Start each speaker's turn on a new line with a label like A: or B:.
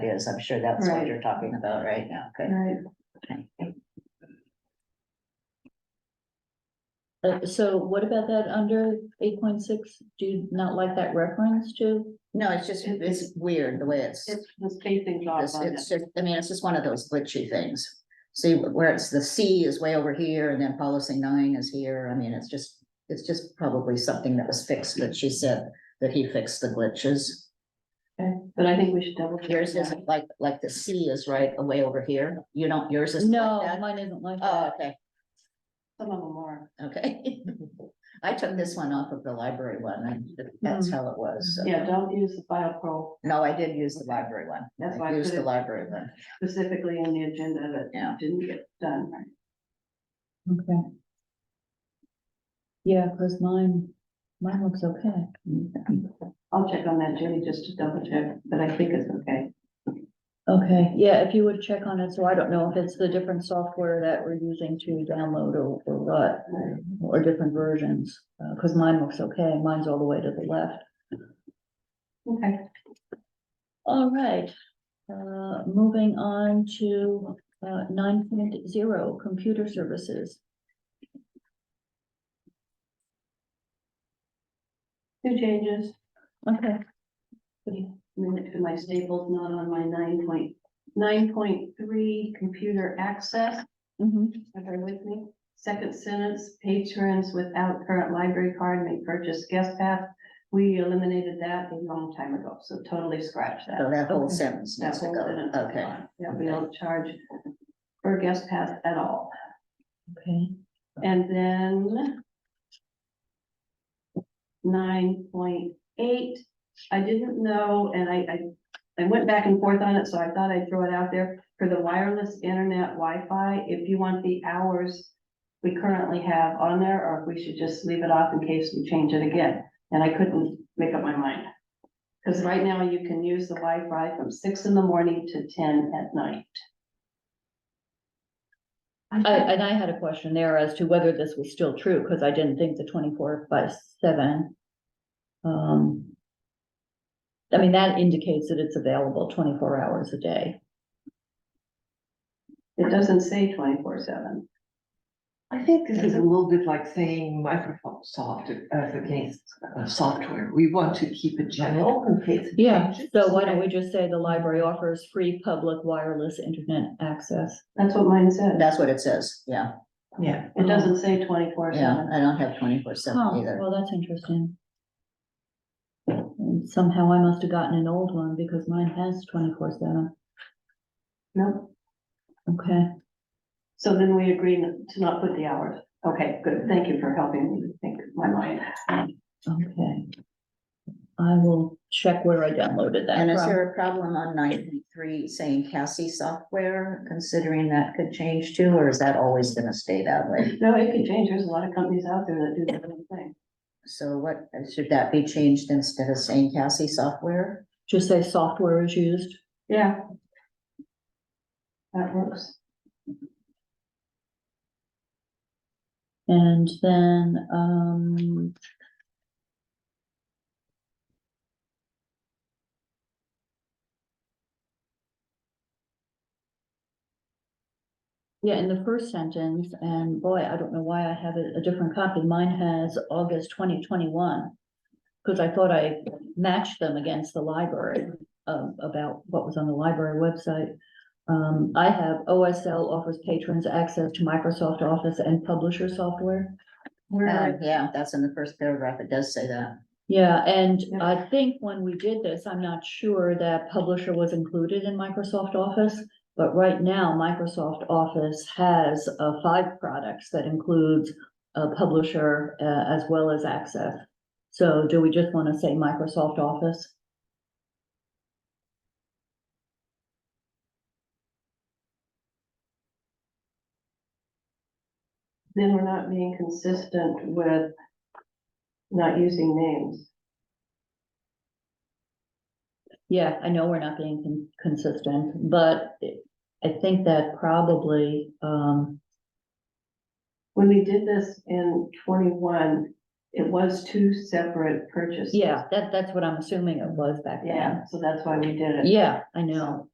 A: is, I'm sure that's what
B: Right.
A: you're talking about right now, okay?
B: Right.
C: Uh, so what about that under eight point six? Do you not like that reference to?
A: No, it's just, it's weird the way it's,
B: It's the spacing off
A: it's,
B: on
A: it's
B: it.
A: just, I mean, it's just one of those glitchy things. See, where it's the C is way over here and then policy nine is here, I mean, it's just, it's just probably something that was fixed that she said that he fixed the glitches.
B: But I think we should double. check
A: Yours
B: that.
A: isn't like, like the C is right away over here, you don't, yours is. like
C: No,
A: that?
C: mine isn't like
A: Oh,
C: that.
A: okay,
B: Some of them are.
A: okay. I took this one off of the library one, and that's how it was. so.
B: Mm-hmm. Yeah, don't use the file pro
A: No, I did use the library one.
B: That's why
A: I
B: I
A: used
B: put
A: the
B: it-
A: library one.
B: specifically in the agenda
A: Yeah.
B: that didn't get done, right?
C: Okay. Yeah, cause mine, mine looks okay.
B: I'll check on that, Jenny, just to double check, but I think it's okay.
C: Okay, yeah, if you would check on it, so I don't know if it's the different software that we're using to download or, or what, or different versions. Uh, cause mine looks okay, mine's all the way to the left.
B: Okay.
C: All right, uh, moving on to, uh, nine point zero, computer services.
B: Two changes,
C: Okay,
B: minute to my staples, not on my nine point, nine point three computer access,
C: mhm,
B: Are they with me. Second sentence, patrons without current library card may purchase guest pass. We eliminated that a long time ago, so totally scratch that.
A: So that whole
C: Okay.
A: sentence
B: That
A: needs to
B: whole
A: go.
B: sentence is
A: Okay,
B: gone. Yeah, we don't charge for guest pass at all.
C: okay.
B: And then nine point eight, I didn't know, and I, I, I went back and forth on it, so I thought I'd throw it out there. For the wireless internet Wi-Fi. if you want the hours we currently have on there, or if we should just leave it off in case we change it again. And I couldn't make up my mind. Cause right now you can use the Wi-Fi from six in the morning to ten at night.
C: I, and I had a question there as to whether this was still true, because I didn't think the twenty-four by seven. Um. I mean, that indicates that it's available twenty-four hours a day.
B: It doesn't say twenty-four seven.
D: I think this is a little bit like saying Microsoft soft as against uh, software. We want to keep it general in case. it changes.
C: So why don't we just say the library offers free public wireless internet access?
B: That's what mine says.
A: that's what it says. Yeah,
D: Yeah,
B: It doesn't say twenty-four
A: yeah.
B: seven.
A: I don't have twenty-four seven
C: Oh,
A: either.
C: well, that's interesting. And Somehow I must have gotten an old one because mine has twenty-four seven.
B: No,
C: Okay,
B: so then we agree n- to not put the hours. Okay, good. Thank you for helping me think my mind.
C: okay. I will check where I downloaded that
A: And is
C: from.
A: there a problem on nine point three saying Cassie software, considering that could change too, or is that always gonna stay that way?
B: No, it could change. There's a lot of companies out there that do the same thing.
A: So what, should that be changed instead of saying Cassie software?
C: Just say software is used.
B: Yeah. That works.
C: And then, um. Yeah, in the first sentence, and boy, I don't know why I have a, a different copy. Mine has August twenty twenty-one. Cause I thought I matched them against the library, um, about what was on the library website. Um, I have OSL offers patrons access to Microsoft Office and publisher software.
B: Uh,
A: Um, yeah, that's in the first paragraph. It does say that.
C: Yeah, and
B: Yeah.
C: I think when we did this, I'm not sure that publisher was included in Microsoft Office. But right now, Microsoft Office has, uh, five products that includes a publisher, uh, as well as access. So do we just want to say Microsoft Office?
B: Then we're not being consistent with not using names.
C: Yeah, I know we're not being con- consistent, but I think that probably, um,
B: When we did this in twenty-one, it was two separate purchases.
C: Yeah, that, that's what I'm assuming it was back then.
B: Yeah, so that's why we did it.
C: Yeah, I know.